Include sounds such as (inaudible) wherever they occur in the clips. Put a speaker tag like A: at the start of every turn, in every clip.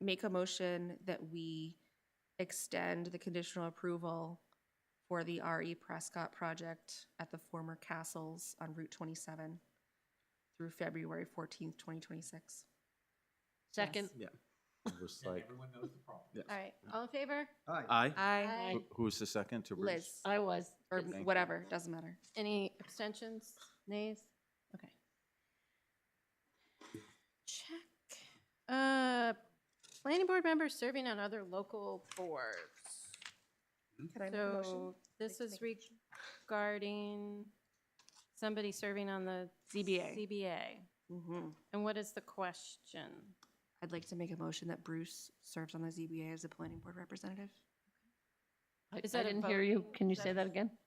A: make a motion that we extend the conditional approval for the RE Prescott project at the former castles on Route 27 through February 14th, 2026.
B: Second.
C: Yeah. It was like,
D: All right, all in favor?
C: aye?
A: I,
D: Aye.
C: Who- Who's the second to Bruce?
A: Liz,
B: I was.
A: or
C: Thank you.
A: whatever, doesn't matter.
D: Any abstentions, nays? Okay. Check. Uh, Planning board members serving on other local boards.
C: Hmm?
A: Can I make a motion?
D: So this is regarding somebody serving on the
A: ZBA.
D: CBA.
A: Mhm.
D: And what is the question?
A: I'd like to make a motion that Bruce serves on the ZBA as a planning board representative.
B: I I
D: Is that a
B: didn't hear you.
D: vote?
B: Can you
D: Is
B: say
D: that-
B: that again?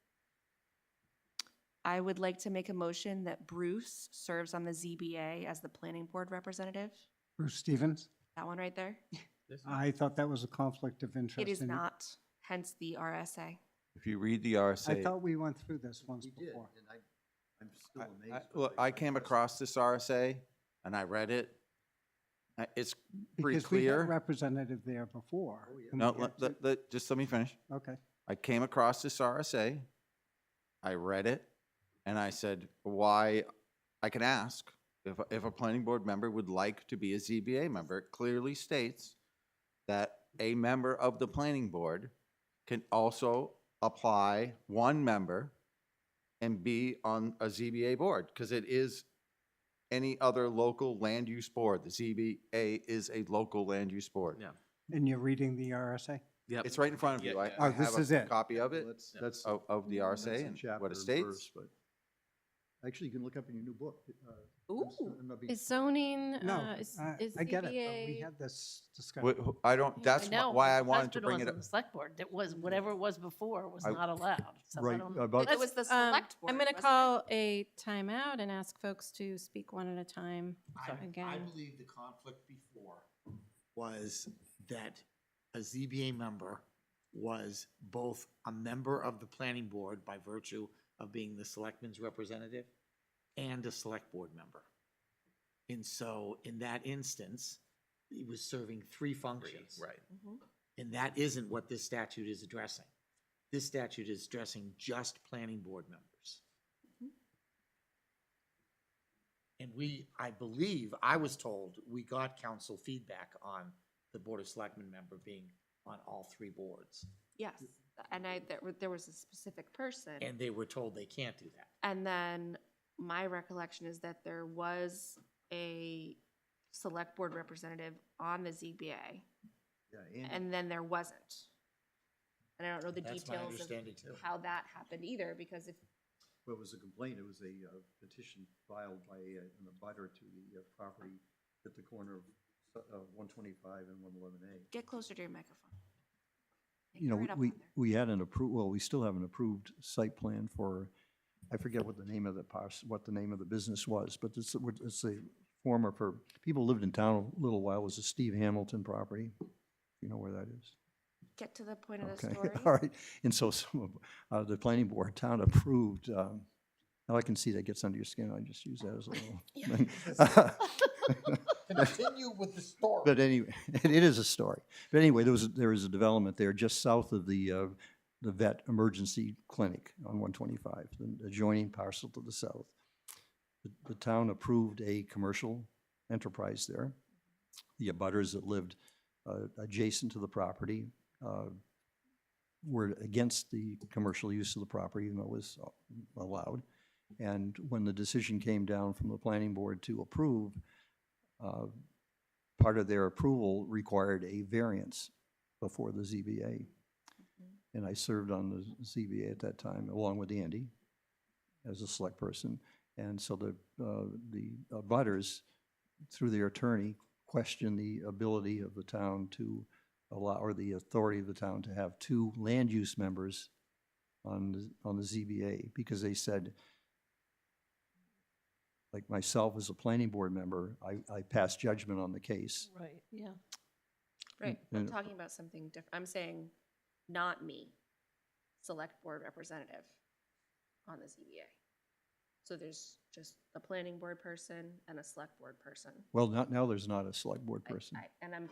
A: I would like to make a motion that Bruce serves on the ZBA as the planning board representative.
E: Bruce Stevens?
A: That one right there?
E: I thought that was a conflict of interest.
A: It is
E: and
A: not, hence the RSA.
C: If you read the
E: I
C: RSA.
E: thought we went through this once
F: We did,
E: before.
F: and I, I'm still
C: I-
F: amazed.
C: I-
F: what
C: Look,
F: they
C: I
F: sent
C: came
F: us.
C: across this RSA and I read it. Uh, It's pretty
E: Because we had a
C: clear.
E: representative there before.
F: Oh, yeah.
E: and
C: No,
E: we
C: let-
E: absent-
C: let- let- just let me finish.
E: Okay,
C: I came across this RSA, I read it, and I said, why, I can ask if, a- if a planning board member would like to be a ZBA member. It clearly states that a member of the planning board can also apply one member and be on a ZBA board, because it is any other local land use board. The ZBA is a local land use board.
G: Yeah.
E: and you're reading the
D: Uh,
E: RSA?
G: Yep.
C: It's right in front of
G: Yeah,
C: you. I
G: yeah.
C: I
E: Oh, this
C: have a
E: is it.
C: Copy of it
F: Let's-
G: Yeah.
F: That's.
C: of, of the
F: that's
C: RSA
F: in
C: and
F: chapter
C: what it
F: and
C: states.
F: verse, but- Actually, you can look up in your new book. uh, I'm
A: Ooh.
F: still- I'm not being-
D: Is zoning,
E: No,
D: uh, is
E: I
D: is
E: I get it. but We
D: ZBA
E: had this
C: Wh-
E: discussion.
C: wh- I don't,
B: I
C: that's wh-
B: know,
C: why
B: my
C: I wanted to
B: husband
C: bring
B: was
C: it up.
B: on the Select board, it was, whatever it was before was
C: I-
B: not allowed. So I
F: Right,
B: don't-
F: about-
A: It was the
D: Um,
A: select board.
D: I'm going to
A: wasn't it?
D: call a timeout and ask folks to speak one at a time.
H: I, I
D: Again.
H: believe the conflict before was that a ZBA member was both a member of the planning board by virtue of being the selectman's representative and a select board member. And so in that instance, he was serving three functions.
G: Right.
A: Mhm.
H: And that isn't what this statute is addressing. This statute is addressing just planning board members. And we, I believe, I was told, we got council feedback on the Board of Selectmen member being on all three boards.
A: Yes, and I, there, were- there was a specific person.
H: And they were told they can't do that.
A: And then my recollection is that there was a select board representative on the ZBA,
F: Yeah, Andy-
A: and then there wasn't. And I don't know the
H: That's my
A: details of
H: understanding too.
A: (laughs) how that happened either, because if,
F: Well, it was a complaint, it was a uh, petition filed by uh, an abutter to the uh, property at the corner of uh, 125 and 111A.
A: get closer to your microphone. Like,
I: you know,
A: right up
I: we,
A: on there.
I: we had an approved, well, we still have an approved site plan for, I forget what the name of the parcel, what the name of the business was, but it's, it's a former, for, people lived in town a little while, it was a Steve Hamilton property. You know where that is?
A: Get to the point of the
I: Okay, (laughs)
A: story.
I: all right. And so some of, uh, the planning board town approved, um, now I can see that gets under your skin, I just use that as a little thing. (laughs)
H: Continue with the story.
I: But anyway, (laughs) it is a story. But anyway, there was, there is a development there just south of the, uh, the vet emergency clinic on one twenty-five, the adjoining parcel to the south. The, the town approved a commercial enterprise there. The abutters that lived, uh, adjacent to the property, uh, were against the commercial use of the property, even though it was allowed. And when the decision came down from the planning board to approve, uh, part of their approval required a variance before the ZBA.
A: Mm-hmm.
I: And I served on the ZBA at that time, along with Andy, as a select person. And so the, uh, the butters, through their attorney, questioned the ability of the town to allow, or the authority of the town to have two land use members on, the on the ZBA, because they said, like myself as a planning board member, I, I pass judgment on the case.
B: Right, yeah.
A: Right,
I: Mm,
A: I'm
I: mm.
A: talking about something different. I'm saying, not me, select board representative on the ZBA. So there's just a planning board person and a select board person.
I: Well, not, now there's not a select board
A: I-
I: person.
A: I- And I'm